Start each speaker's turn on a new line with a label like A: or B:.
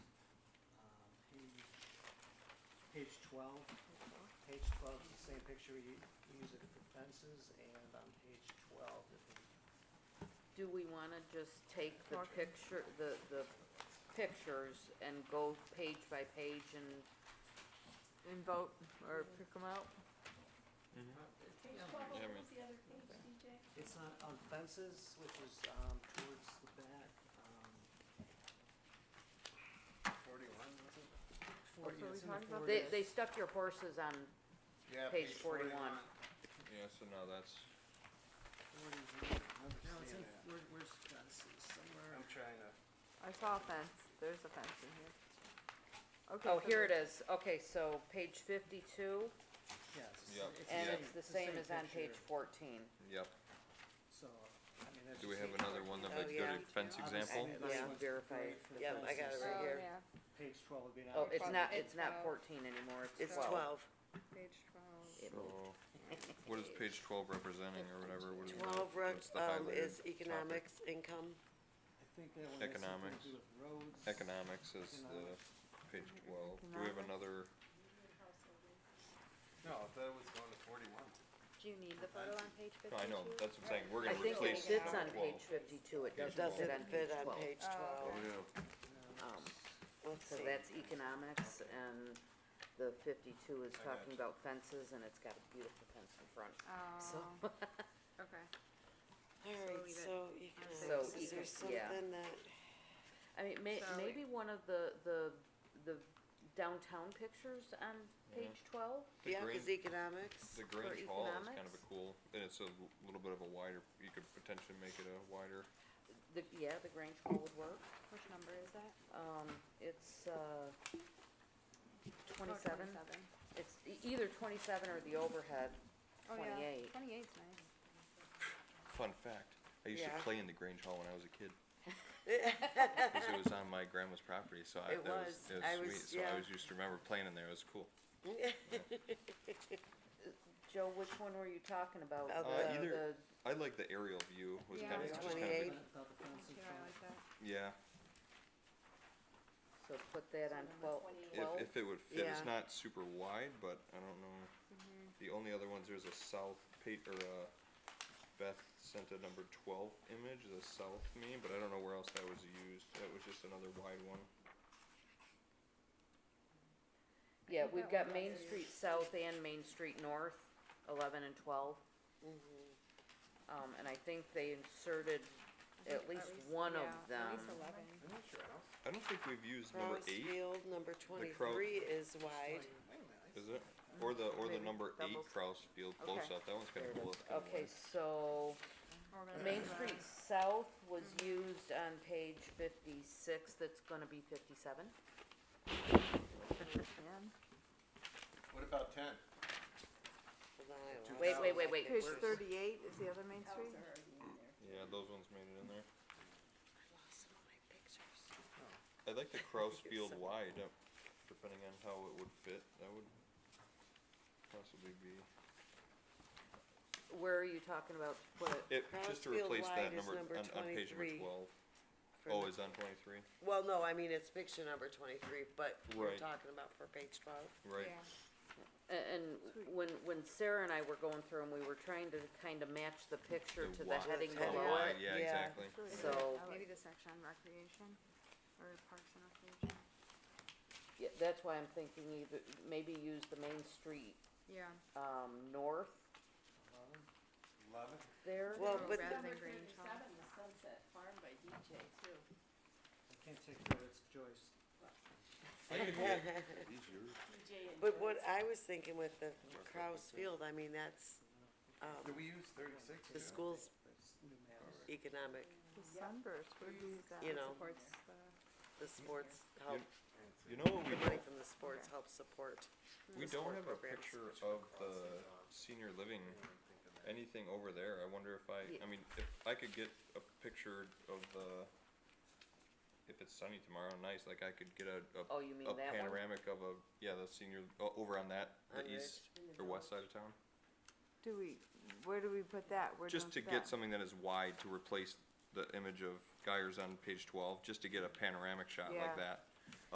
A: Um, page twelve, page twelve is the same picture you, you use it for fences, and on page twelve, it would
B: Do we wanna just take the picture, the, the pictures and go page by page and,
C: And vote, or pick them out?
D: Page
C: Yeah.
D: twelve,
E: Yeah,
D: what
E: I
D: was the other page, DJ?
A: It's on, on fences, which is, um, towards the back, um. Forty-one, was it? Forty,
C: what we
A: it's in the
C: talking about?
B: they,
A: forties.
B: they stuck your horses on,
F: Yeah,
B: Page 41.
E: Yeah, so now that's,
A: Forty-one, I
F: No, it's in-
A: where, where's fences, somewhere.
F: I'm trying to,
C: I saw a fence, there's a fence in here. Okay,
B: oh,
C: so
B: here it
C: the-
B: is, okay, so page fifty-two,
A: Yeah, it's the
E: Yep.
A: same-
B: and
E: Yeah.
B: it's the same as on page
A: picture,
B: fourteen.
E: yep.
A: So, I mean, that's.
E: Do we
A: just
E: have
A: page
E: another one
B: Oh,
E: that would go to
B: yeah.
E: fence
A: Obviously,
E: example?
A: that's
B: Yeah,
A: what's
B: verify
A: great
B: it.
A: for
B: Yeah, I got it
A: fences.
B: right
G: Oh,
B: here.
G: yeah,
A: Uh, Page twelve would be an.
B: Oh, it's not,
G: It's
B: it's not
G: 12.
B: fourteen anymore, it's
G: It's
B: twelve.
G: 12. page twelve.
B: It
E: So,
B: moved.
E: what is page twelve representing or whatever? What is that?
G: Twelve rug,
E: Mm. What's the
G: um,
E: highlighted
G: is
E: topic?
G: economics, income,
A: I think that one has something
E: Economics.
A: to do with roads.
E: Economics is the, page twelve. Do we have another,
F: no, I thought it was going to forty-one.
B: Um,
G: Do you need the
F: photo on
G: page
E: no, I know, that's what I'm saying, we're
B: I
E: gonna
B: think it
E: replace
B: sits on
E: number twelve.
B: page fifty-two, it
E: Yes,
B: doesn't
E: it
G: Doesn't
B: fit on page
G: fit on
D: Oh,
B: twelve.
G: page twelve.
D: okay.
B: Um,
A: Economics.
G: Let's
B: So
G: see.
B: that's economics, and the fifty-two is
F: I got
B: talking
F: you.
B: about fences, and it's got a beautiful fence in front, so.
D: Oh, okay.
G: Alright,
D: leave it.
G: so
B: So
G: economics, is there
B: econ- yeah.
G: something that,
B: I mean, may,
D: So-
B: maybe one of the, the, the downtown pictures on page twelve?
E: The
G: yeah,
E: green,
G: cause economics,
E: the Grange
B: for
E: Hall is kind of
B: economics?
E: a cool, and it's a l- little bit of a wider, you could potentially make it a wider,
B: The, yeah, the Grange Hall would work,
D: Which number is that?
B: um, it's, uh, twenty-seven, it's e- either twenty-seven or the overhead,
D: Oh, yeah.
B: twenty-eight.
D: Twenty-eight's nice.
E: fun fact. I used to
G: Yeah.
E: play in the Grange Hall when I was a kid. Cause it was on my grandma's property, so I,
G: It
E: that was,
G: was. I
E: it
G: was-
E: was sweet, so I
G: yeah.
E: always used to remember playing in there, it was cool.
B: Joe, which one were you talking about? The-
G: Of
E: the- Uh, either-
B: the-
E: I like the aerial view was
D: Yeah,
E: kind of,
G: it's
E: just kind
G: Twenty-eight.
E: of,
A: About the fence in
D: Too, I
A: front.
D: like that.
E: yeah,
B: So put that on twelve, twelve?
E: if, if it would fit,
G: Yeah.
E: it's not super wide, but I don't know.
B: Mm-hmm.
E: The only other ones, there's a south pa- or uh Beth sent a number twelve image, the south me, but I don't know where else that was used, that was just another wide one.
B: Yeah,
D: think
B: we've
D: that
B: got
D: one
B: Main
D: does.
B: Street South and Main Street North, eleven and twelve.
D: Mm-hmm.
B: Um, and I think they inserted at least one of
D: At
B: them.
D: least eleven.
F: I'm not sure, I was,
E: I don't think we've used number
G: Cross
E: eight,
G: Field, number
E: crow-
G: twenty-three is wide,
F: wait a minute, I
E: is it? Or the, or the
B: Maybe
E: number eight
B: doubles.
E: Kraus Field close
B: Okay.
E: up, that one's
B: There
E: kinda
B: it
E: cool,
B: is.
E: it's kinda
B: Okay,
E: wide.
B: so
D: We're gonna
B: Main
D: do that.
B: Street South was
D: Mm-hmm.
B: used on page fifty-six, that's gonna be fifty-seven.
F: What about ten?
G: Hold on, I lost
B: Wait, wait,
G: it.
B: wait, wait.
C: Page
B: where's-
C: thirty-eight is the other Main Street?
E: Yeah, those ones made it in there. I like the Kraus Field wide, uh, depending on how it would fit, that would possibly be.
B: Where are you talking about, to put it?
E: It,
G: Cross
E: just to
G: field
E: replace
G: wide
E: that
G: is
E: number,
G: number
E: on, on page number
G: 23.
E: twelve.
G: For
E: Oh,
G: the-
E: is on twenty-three?
G: Well, no, I mean, it's picture number twenty-three, but we're
E: Right.
G: talking about for page twelve.
E: Right.
D: Yeah.
B: A- And when, when Sarah and I were going through and we were trying to kind of match the picture
E: The
B: to the
E: wide-
B: heading
G: the
E: Oh,
B: below
G: wide.
B: it,
E: wide, yeah,
G: Yeah.
E: exactly.
B: So-
D: Maybe the section on recreation or parks and recreation.
B: yeah, that's why I'm thinking either, maybe use the Main Street,
D: Yeah.
B: um, north
A: Eleven?
F: Love it.
B: there.
G: Well,
D: Or
G: but-
D: Oh, rather than
H: Number
D: Grange Hall.
H: thirty-seven, the Sunset Farm by DJ too.
A: I can't take credit, it's Joyce.
E: I could get- these yours?
H: DJ and.
G: But what
H: Joyce.
G: I was thinking with the Kraus Field, I mean, that's, um,
F: Do we use thirty-six?
G: the
F: Yeah.
G: school's
A: That's new maps.
G: economic,
C: The Sunburst, where do you use that?
G: you know,
D: Supports the,
G: the sports help,
E: You know what we
G: the
E: don't,
G: money from the sports helps support.
E: we
G: the
E: don't
G: sport
E: have a
G: programs.
E: picture of the senior living, anything over there, I wonder if I,
B: Yeah.
E: I mean, if I could get a picture of the, if it's sunny tomorrow, nice, like I could get a, a
B: Oh, you mean
E: a
B: that one? Oh,
E: panoramic of a, yeah, the senior, o- over on that,
G: On
E: the
G: Ridge.
E: east or west side of town.
C: Do we, where do we put that? Where
E: Just
C: does
E: to
C: that-
E: get something that is wide to replace the image of Geyers on page twelve, just to get a panoramic shot
C: Yeah.
E: like that.